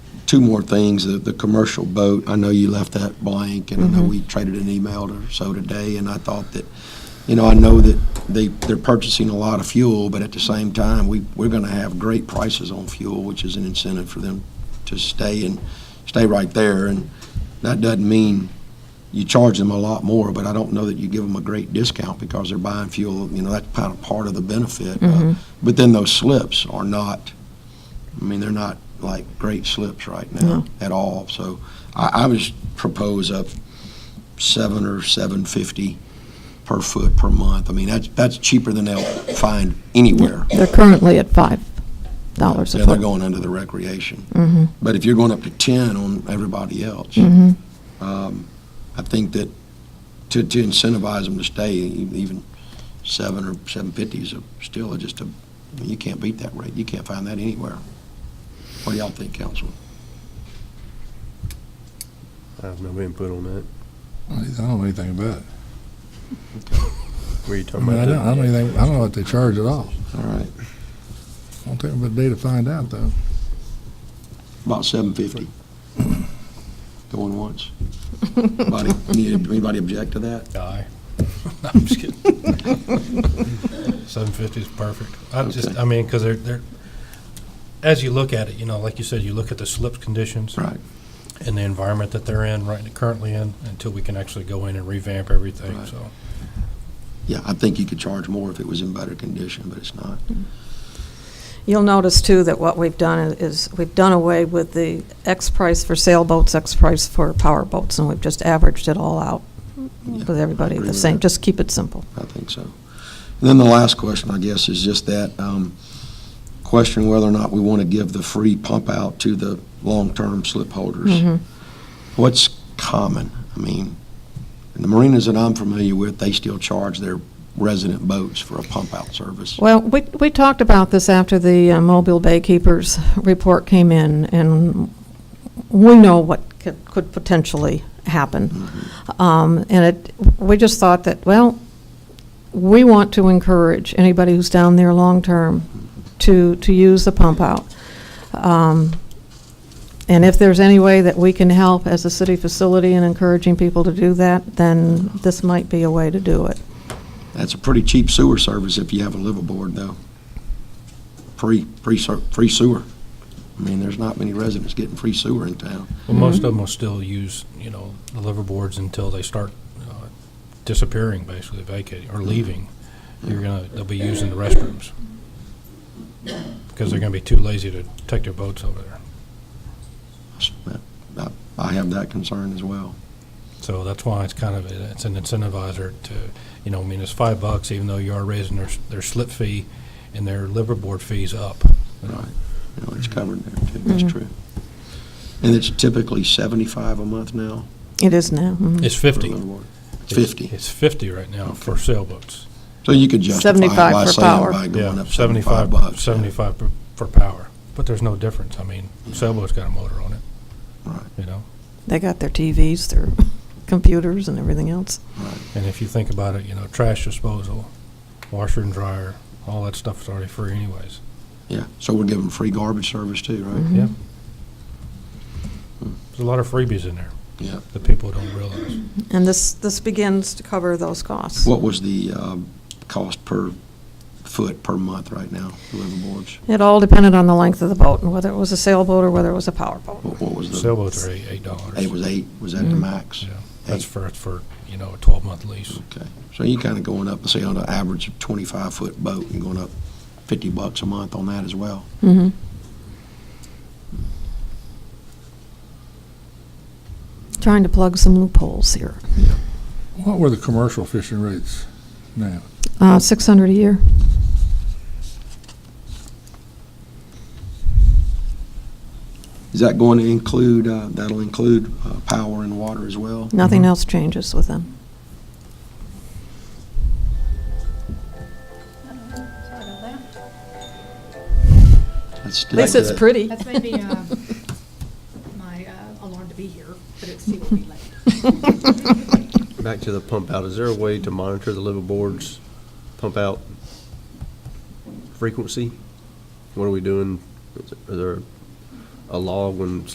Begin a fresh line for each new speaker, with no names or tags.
two more things, the, the commercial boat, I know you left that blank, and I know we traded an email or so today, and I thought that, you know, I know that they, they're purchasing a lot of fuel, but at the same time, we, we're gonna have great prices on fuel, which is an incentive for them to stay and, stay right there, and that doesn't mean you charge them a lot more, but I don't know that you give them a great discount because they're buying fuel, you know, that's kind of part of the benefit. Uh, But then those slips are not, I mean, they're not like great slips right now
No.
at all. So I, I would propose up seven or seven fifty per foot per month. I mean, that's, that's cheaper than they'll find anywhere.
They're currently at five dollars
Yeah,
a
they're
foot.
going under the recreation. But if you're going up to 10 on everybody else, um, I think that to to incentivize them to stay, e- even 7 or 750 is a- still just a, you can't beat that rate. You can't find that anywhere. What do y'all think, Councilman?
I have no input on that.
I don't know anything about it.
Were you
I
talking
mean, I
about
don't,
that?
I don't even, I don't know what they charge at all.
All right,
Won't take but a day to find out, though.
about 750. Going once. Anybody anybody object to that?
Aye. No, I'm just kidding. Seven fifty is perfect. I just,
Okay.
I mean, because they're, they're, as you look at it, you know, like you said, you look at the slip conditions
Right,
and the environment that they're in, right, currently in, until we can actually go in and revamp everything,
Right.
so.
yeah, I think you could charge more if it was in better condition, but it's not.
You'll notice too that what we've done is, we've done away with the X price for sailboats, X price for power boats, and we've just averaged it all out
Yeah,
with everybody
agree
the
with
same,
that.
just keep it simple.
I think so. And then the last question, I guess, is just that um, question whether or not we want to give the free pump out to the long-term slip holders. What's common? I mean, in the marinas that I'm familiar with, they still charge their resident boats for a pump-out service.
Well, we, we talked about this after the uh, Mobile Bay Keepers report came in, and we know what could, could potentially happen. Um, and it, we just thought that, well, we want to encourage anybody who's down there long-term to, to use the pump out. Um, and if there's any way that we can help as a city facility in encouraging people to do that, then this might be a way to do it.
That's a pretty cheap sewer service if you have a liveaboard, though. Free, free ser- free sewer. I mean, there's not many residents getting free sewer in town.
Well, most of them will still use, you know, the liverboards until they start uh, disappearing, basically vacating
Mm-hmm.
or leaving. You're gonna, they'll be using the restrooms. Because they're gonna be too lazy to take their boats over there.
I- I have that concern as well.
So that's why it's kind of, it's an incentivizer to, you know, I mean, it's five bucks, even though you are raising their, their slip fee and their liverboard fees up.
Right, you know, it's covered there too, that's true. And it's typically seventy-five a month now?
It is now. mhm.
It's
for
fifty.
liverboard? It's
It's-
Fifty,
It's fifty right now for sailboats.
so you could justify
75
by
for
saying
power.
by going
Yeah,
up seventy-five
75
bucks. yeah.
75 for- for power, but there's no difference. I mean, sailboat's got a motor on it.
Right.
You know,
They got their TVs, their computers, and everything else.
and if you think about it, you know, trash disposal, washer and dryer, all that stuff is already free anyways.
Yeah, so we're giving free garbage service too, right?
Yeah. There's a lot of freebies in there
Hmm. Yeah.
that people don't realize.
And this, this begins to cover those costs.
What was the, um, cost per foot per month right now, the liverboards?
It all depended on the length of the boat, and whether it was a sailboat or whether it was a power boat.
What, what was the?
Sailboats are eight, eight dollars.
It was eight, was that the max?
Yeah, that's
Eight.
for, for, you know, a twelve-month lease.
Okay, so you're kinda going up, say on an average of twenty-five foot boat, you're going up fifty bucks a month on that as well.
Mhm. Trying to plug some loopholes here.
What were the commercial fishing rates now?
Uh, 600 a year.
Is that going to include, uh, that'll include uh, power and water as well?
Nothing
Mhm.
else changes with them.
At
At least it's pretty.
That's maybe um, my uh, alarm to be here, but it's still will be late.
Back to the pump out, is there a way to monitor the liveaboard's pump out frequency? What are we doing? Is there a law when